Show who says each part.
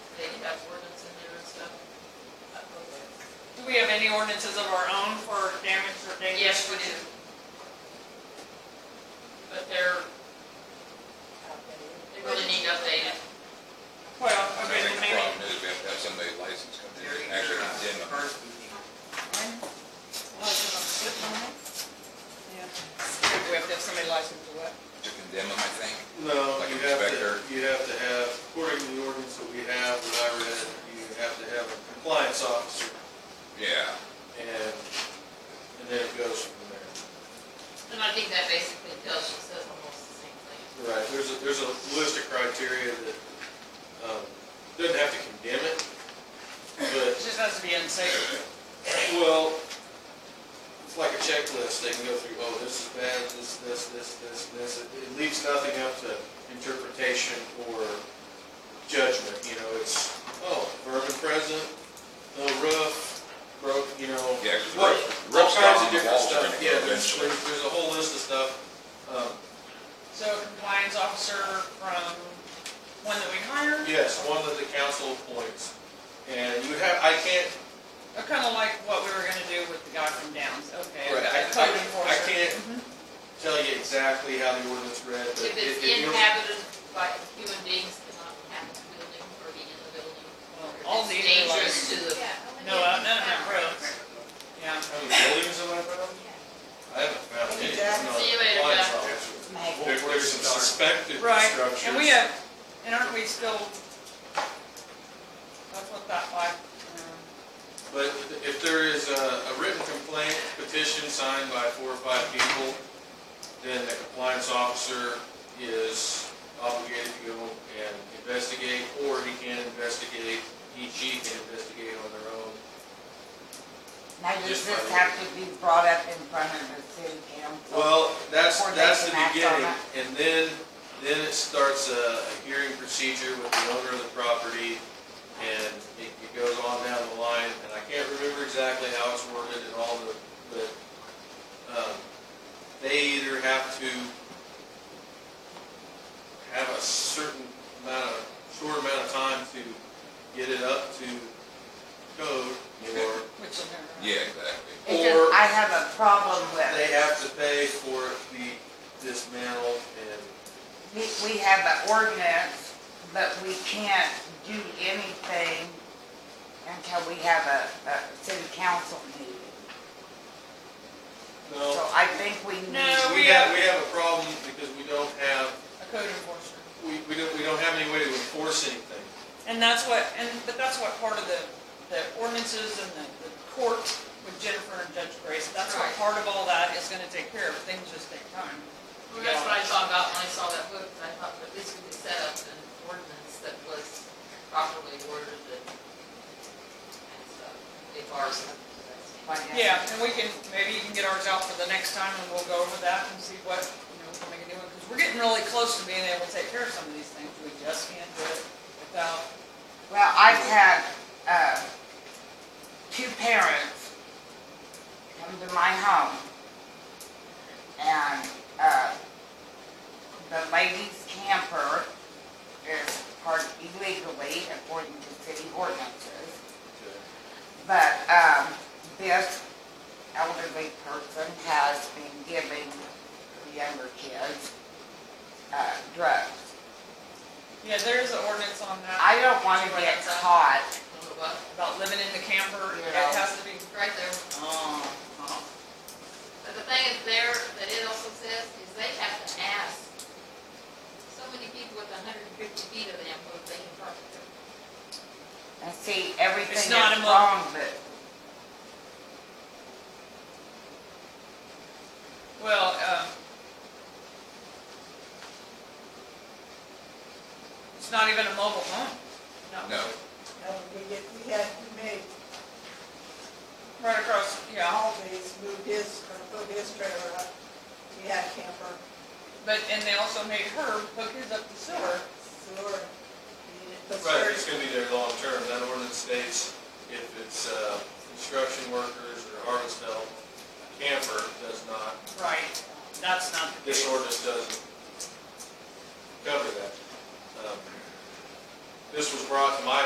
Speaker 1: any ordinances of our own for damage or danger?
Speaker 2: Yes, we do. But they're, they really need updated.
Speaker 1: Well,
Speaker 3: I
Speaker 1: okay,
Speaker 3: think
Speaker 1: then
Speaker 3: the
Speaker 1: maybe,
Speaker 3: problem is we have to have somebody licensed come in and actually condemn them.
Speaker 1: we have to have somebody licensed to what?
Speaker 3: To condemn them, I think.
Speaker 4: No,
Speaker 3: Like
Speaker 4: you
Speaker 3: an
Speaker 4: have
Speaker 3: inspector?
Speaker 4: to, you have to have, according to the ordinance that we have, that I read, you have to have a compliance officer,
Speaker 3: Yeah.
Speaker 4: and, and then it goes from there.
Speaker 2: And I think that basically tells you, says almost the same thing.
Speaker 4: Right, there's a, there's a list of criteria that, um, doesn't have to condemn it,
Speaker 1: It
Speaker 4: but,
Speaker 1: just has to be unsafe.
Speaker 4: well, it's like a checklist, they can go through, oh, this is bad, this, this, this, this, and this, it it leaves nothing up to interpretation or judgment, you know, it's, oh, vermin present, no roof, broke, you know.
Speaker 3: Yeah, 'cause
Speaker 4: what-
Speaker 3: roofs- roofs
Speaker 4: All kinds
Speaker 3: down,
Speaker 4: of
Speaker 3: the
Speaker 4: different
Speaker 3: walls are
Speaker 4: stuff,
Speaker 3: gonna
Speaker 4: yeah,
Speaker 3: go
Speaker 4: there's,
Speaker 3: eventually.
Speaker 4: there's there's a whole list of stuff, um,
Speaker 1: So a compliance officer from one that we hire,
Speaker 4: Yes, one that the council appoints. And you have, I can't,
Speaker 1: Uh, kinda like what we were gonna do with the guy from Downs, okay?
Speaker 4: Right,
Speaker 1: a
Speaker 4: I-
Speaker 1: code
Speaker 4: I- I
Speaker 1: enforcer.
Speaker 4: can't-
Speaker 1: Mhm.
Speaker 4: tell you exactly how the ordinance read, but
Speaker 2: If
Speaker 4: it,
Speaker 2: it's
Speaker 4: it, you-
Speaker 2: inhabited by human beings, cannot have the building or be in the building. or if
Speaker 1: All
Speaker 2: it's
Speaker 1: these are like-
Speaker 2: Dangerous to the,
Speaker 1: No, uh, none of that roads, yeah.
Speaker 4: how many buildings am I from? I haven't found any. that's not
Speaker 2: See you later,
Speaker 4: compliance
Speaker 2: Jeff.
Speaker 4: officer. There- There's some suspected
Speaker 1: Right,
Speaker 4: structures.
Speaker 1: and we uh, have, and aren't we still, that's what that like, um,
Speaker 4: But if there is a, a written complaint, petition signed by four or five people, then the compliance officer is obligated to go and investigate, or he can investigate, EG can investigate on their own.
Speaker 5: Now, does this have to be brought up in front of the city council?
Speaker 4: Well, that's,
Speaker 5: Or they
Speaker 4: that's the
Speaker 5: can act on
Speaker 4: beginning, and then, then it starts a a hearing procedure with the owner of the property, and it it goes on down the line, and I can't remember exactly how it's worded and all the, but, um, they either have to have a certain amount of, short amount of time to get it up to code, or
Speaker 1: which uh, will never. happen.
Speaker 3: Yeah, exactly.
Speaker 5: It's just,
Speaker 4: or-
Speaker 5: I have a problem
Speaker 4: they
Speaker 5: with,
Speaker 4: have to pay for it to be dismantled and
Speaker 5: we, we have an ordinance, but we can't do anything until we have a, a city council meeting. So
Speaker 4: No,
Speaker 5: I think we need.
Speaker 1: No.
Speaker 4: we have, we have a problem because we don't have,
Speaker 1: A code enforcer.
Speaker 4: we, we don't, we don't have any way to enforce anything.
Speaker 1: And that's what, and, but that's what part of the, the ordinances and the, the court with Jennifer and Judge Grace, that's what
Speaker 2: Right.
Speaker 1: part of all that is gonna take care of, things just take time.
Speaker 2: well, that's what I thought about when I saw that book, and I thought that this could be set up in an ordinance that was properly worded and, and stuff. If ours.
Speaker 5: Like,
Speaker 1: Yeah, and we can, maybe you can get ours out for the next time and we'll go over that and see what, you know, we can make a new one, because we're getting really close to being able to take care of some of these things, we just can't do it without
Speaker 5: Well, I've had, uh, two parents come to my home. And, uh, the lady's camper is parked illegally according to city ordinances. But, um, this elderly person has been giving the younger kids, uh, drugs.
Speaker 1: Yeah, there is an ordinance on that,
Speaker 5: I don't wanna get caught
Speaker 2: What,
Speaker 1: about living in the camper, it
Speaker 5: Yeah.
Speaker 1: has to be,
Speaker 2: right there.
Speaker 1: oh, oh.
Speaker 2: But the thing is there, that it also says, is they have to ask so many people with hundred and fifty feet of them, what they can park there.
Speaker 5: and see everything
Speaker 1: It's
Speaker 5: that's
Speaker 1: not a mo-
Speaker 5: wrong, but
Speaker 1: Well, um, it's not even a mobile home.
Speaker 3: No,
Speaker 6: No, we get, we had, we made,
Speaker 1: Right across, yeah,
Speaker 6: always moved his, or put his uh, trailer up. We had camper,
Speaker 1: but, and they also made her hook his up to sewer.
Speaker 6: sewer, needed, but
Speaker 4: Right,
Speaker 6: sewer,
Speaker 4: it's gonna be there long term, that ordinance states if it's, uh, construction workers or harvest help, camper does not,
Speaker 1: Right. That's not the
Speaker 4: this
Speaker 1: case.
Speaker 4: ordinance doesn't cover that. Um, This was brought to my